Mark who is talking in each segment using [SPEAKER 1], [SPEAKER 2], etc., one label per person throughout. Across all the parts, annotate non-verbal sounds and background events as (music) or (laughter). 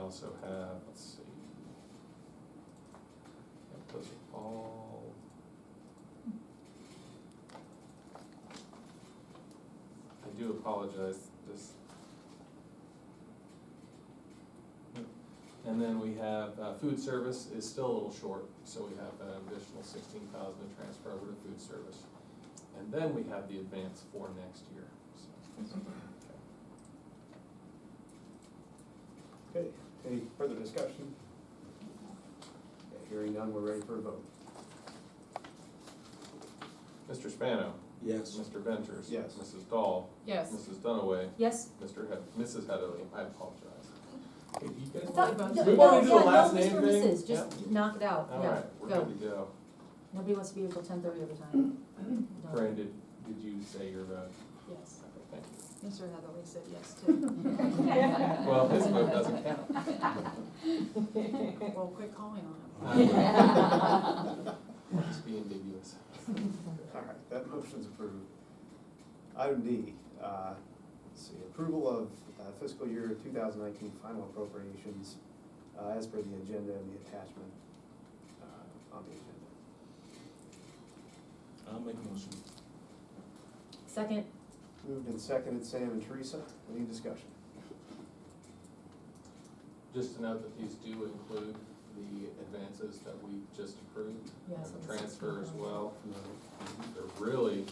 [SPEAKER 1] also have, let's see. Yep, Those are all. I do apologize, this. And then we have, uh, food service is still a little short, so we have an additional sixteen thousand to transfer over to food service. And then we have the advance for next year, so.
[SPEAKER 2] Okay, any further discussion? Okay, Hearing none, we're ready for a vote.
[SPEAKER 1] Mr. Spano,
[SPEAKER 3] Yes.
[SPEAKER 1] Mr. Ventures.
[SPEAKER 2] Yes.
[SPEAKER 1] Mrs. Dahl.
[SPEAKER 4] Yes.
[SPEAKER 1] Mrs. Dunaway,
[SPEAKER 4] Yes.
[SPEAKER 1] Mr. Head, Mrs. Heatherly, I apologize. Hey, do you guys
[SPEAKER 4] I
[SPEAKER 1] want-
[SPEAKER 4] thought-
[SPEAKER 1] do
[SPEAKER 4] no,
[SPEAKER 1] we
[SPEAKER 4] no,
[SPEAKER 1] wanna do the
[SPEAKER 4] yeah, no
[SPEAKER 1] last name
[SPEAKER 4] misnomer
[SPEAKER 1] thing?
[SPEAKER 4] misses, Just knock it out,
[SPEAKER 1] All
[SPEAKER 4] yeah,
[SPEAKER 1] right, we're
[SPEAKER 4] go.
[SPEAKER 1] good to go.
[SPEAKER 4] Nobody wants to be here till ten thirty every
[SPEAKER 1] (laughs)
[SPEAKER 4] time. No. (laughs)
[SPEAKER 1] Fran, did, did you say your vote?
[SPEAKER 4] Yes.
[SPEAKER 1] Okay, Thank you.
[SPEAKER 4] Mr. Hathaway said yes (laughs) too.
[SPEAKER 1] Well, his vote doesn't
[SPEAKER 4] (laughs)
[SPEAKER 1] count.
[SPEAKER 4] Well, quit calling on
[SPEAKER 5] (laughs)
[SPEAKER 4] him.
[SPEAKER 1] I will. Just be ambiguous.
[SPEAKER 2] All right, that motion's approved. Item D, uh, let's see, approval of uh, fiscal year two thousand nineteen final appropriations uh, as per the agenda and the attachment uh, on the agenda.
[SPEAKER 3] I'll make a motion.
[SPEAKER 4] Second,
[SPEAKER 2] Moved and seconded, Sam and Teresa, any discussion?
[SPEAKER 1] Just to note that these do include the advances that we just approved.
[SPEAKER 4] yes.
[SPEAKER 1] And the
[SPEAKER 4] it's
[SPEAKER 1] transfer as
[SPEAKER 4] sixteen.
[SPEAKER 1] well. There really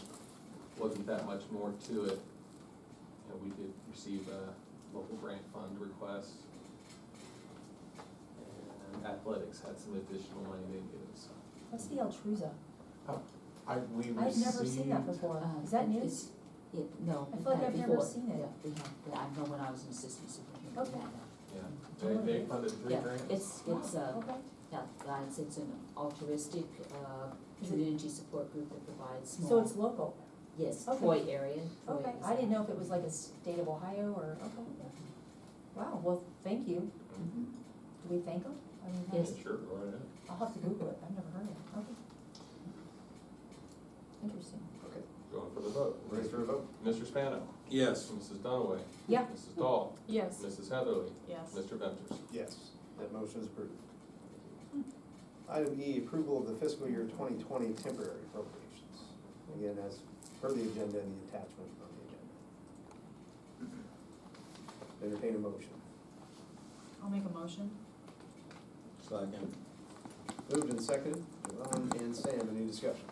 [SPEAKER 1] wasn't that much more to it. You know, we did receive a local grant fund request. And athletics had some additional money they gave us.
[SPEAKER 4] What's the Altruza?
[SPEAKER 1] I, we
[SPEAKER 4] I've never seen that before. Is that new?
[SPEAKER 5] It's- It, no.
[SPEAKER 4] I
[SPEAKER 5] we've
[SPEAKER 4] feel like
[SPEAKER 5] had
[SPEAKER 4] I've never
[SPEAKER 5] before.
[SPEAKER 4] seen it.
[SPEAKER 5] Yeah, we have, yeah, I know when I was an assistant superintendent.
[SPEAKER 4] Okay.
[SPEAKER 1] Yeah, they, they funded three
[SPEAKER 5] Yeah,
[SPEAKER 1] grants.
[SPEAKER 5] it's, it's,
[SPEAKER 4] Wow,
[SPEAKER 5] uh,
[SPEAKER 4] okay.
[SPEAKER 5] yeah, it's, it's an altruistic, uh,
[SPEAKER 4] Is it-
[SPEAKER 5] community support group that provides small.
[SPEAKER 4] So it's local.
[SPEAKER 5] Yes,
[SPEAKER 4] okay.
[SPEAKER 5] Troy area. Troy
[SPEAKER 4] Okay,
[SPEAKER 5] is-
[SPEAKER 4] I didn't know if it was like a state of Ohio or, okay. Wow, well, thank you.
[SPEAKER 1] Mm-hmm.
[SPEAKER 5] Mhm.
[SPEAKER 4] Do we thank them? I mean, how-
[SPEAKER 5] Yes.
[SPEAKER 1] Sure, go right ahead.
[SPEAKER 4] I'll have to Google it. I've never heard of it. Okay. Interesting.
[SPEAKER 2] Okay,
[SPEAKER 1] Going for the vote.
[SPEAKER 2] ready for a vote?
[SPEAKER 1] Mr. Spano,
[SPEAKER 3] Yes.
[SPEAKER 1] Mrs. Dunaway.
[SPEAKER 4] Yeah.
[SPEAKER 1] Mrs. Dahl,
[SPEAKER 4] Yes.
[SPEAKER 1] Mrs. Heatherly,
[SPEAKER 4] Yes.
[SPEAKER 1] Mr. Ventures.
[SPEAKER 2] Yes, that motion is approved. Item E, approval of the fiscal year twenty twenty temporary appropriations. Again, as per the agenda and the attachment on the agenda. Entertain a motion.
[SPEAKER 4] I'll make a motion.
[SPEAKER 3] Second.
[SPEAKER 2] Moved and seconded, Devon and Sam, any discussion?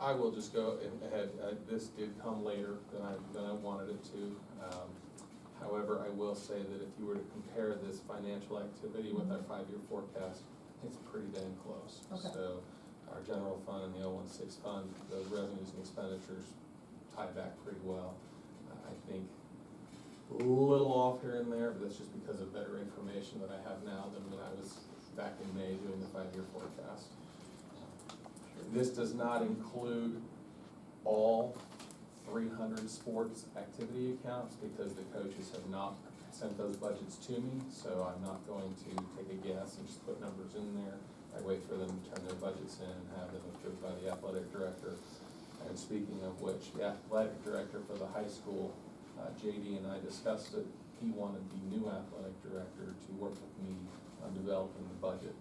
[SPEAKER 1] I will just go a- ahead, Uh, this did come later than I, than I wanted it to. Um, However, I will say that if you were to compare this financial activity with our five-year forecast, it's pretty dang close.
[SPEAKER 4] Okay.
[SPEAKER 1] So our general fund and the 016 fund, those revenues and expenditures tie back pretty well. Uh, I think a little off here and there, but that's just because of better information that I have now than when I was back in May doing the five-year forecast. Uh, This does not include all three hundred sports activity accounts because the coaches have not sent those budgets to me, so I'm not going to take a guess and just put numbers in there. I wait for them to turn their budgets in and have them approved by the athletic director. And speaking of which, the athletic director for the high school, uh, JD and I discussed it. He wanted the new athletic director to work with me on developing the budget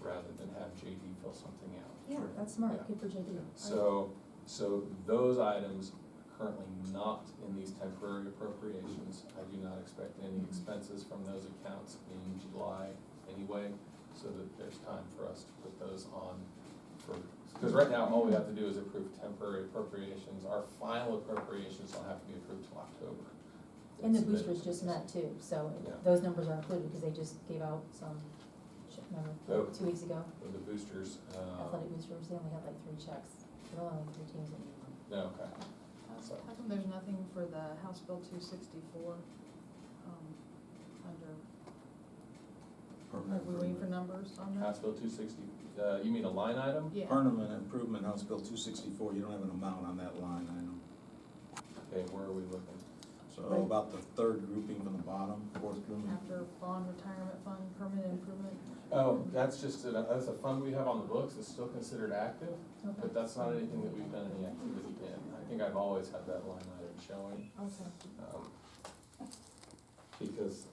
[SPEAKER 1] rather than have JD fill something out.
[SPEAKER 4] Yeah, that's
[SPEAKER 1] Yeah.
[SPEAKER 4] smart. Good for JD.
[SPEAKER 1] So, so those items are currently not in these temporary appropriations. I do not expect any
[SPEAKER 4] Mm-hmm.
[SPEAKER 1] expenses from those accounts in July anyway, so that there's time for us to put those on for, because right now, all we have to do is approve temporary appropriations. Our final appropriations don't have to be approved till October.
[SPEAKER 4] And the boosters just met too, so
[SPEAKER 1] Yeah.
[SPEAKER 4] those numbers are included because they just gave out some, sh- remember,
[SPEAKER 1] Yep.
[SPEAKER 4] two weeks ago,
[SPEAKER 1] With The boosters, um,
[SPEAKER 4] athletic boosters, they only had like three checks. There were only three teams that needed one.
[SPEAKER 1] no, okay. So-
[SPEAKER 6] How come there's nothing for the House Bill two sixty-four, um, under, are we waiting for numbers on that?
[SPEAKER 1] House Bill two sixty, uh, you mean a line item?
[SPEAKER 6] Yeah,
[SPEAKER 3] Permanent Improvement House Bill two sixty-four, you don't have an amount on that line item.
[SPEAKER 1] Okay, where are we looking?
[SPEAKER 3] So
[SPEAKER 4] Right.
[SPEAKER 3] about the third grouping from the bottom, fourth grouping.
[SPEAKER 6] after bond retirement fund, permanent improvement,
[SPEAKER 1] Oh, that's just, a- that's a fund we have on the books, it's still considered active,
[SPEAKER 4] Okay,
[SPEAKER 1] but that's not anything that we've done any activity in. I think I've always had that line item showing,
[SPEAKER 4] okay.
[SPEAKER 1] um, because